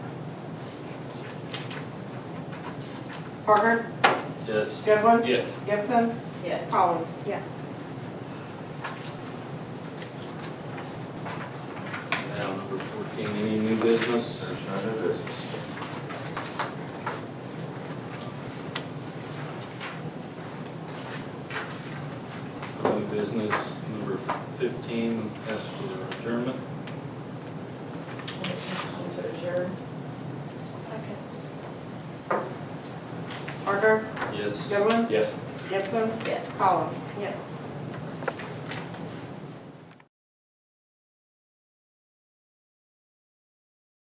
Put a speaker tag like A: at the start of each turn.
A: Parker?
B: Yes.
A: Goodwin?
B: Yes.
A: Gibson?
C: Yes.
A: Collins?
D: Yes.
B: Now, number fourteen, any new business?
E: There's no new business.
B: No New business, number fifteen, ask for adjournment.
C: Motion to adjourn.
D: Second.
A: Parker?
B: Yes.
A: Goodwin?
B: Yes.
A: Gibson?
C: Yes.
A: Collins?
D: Yes.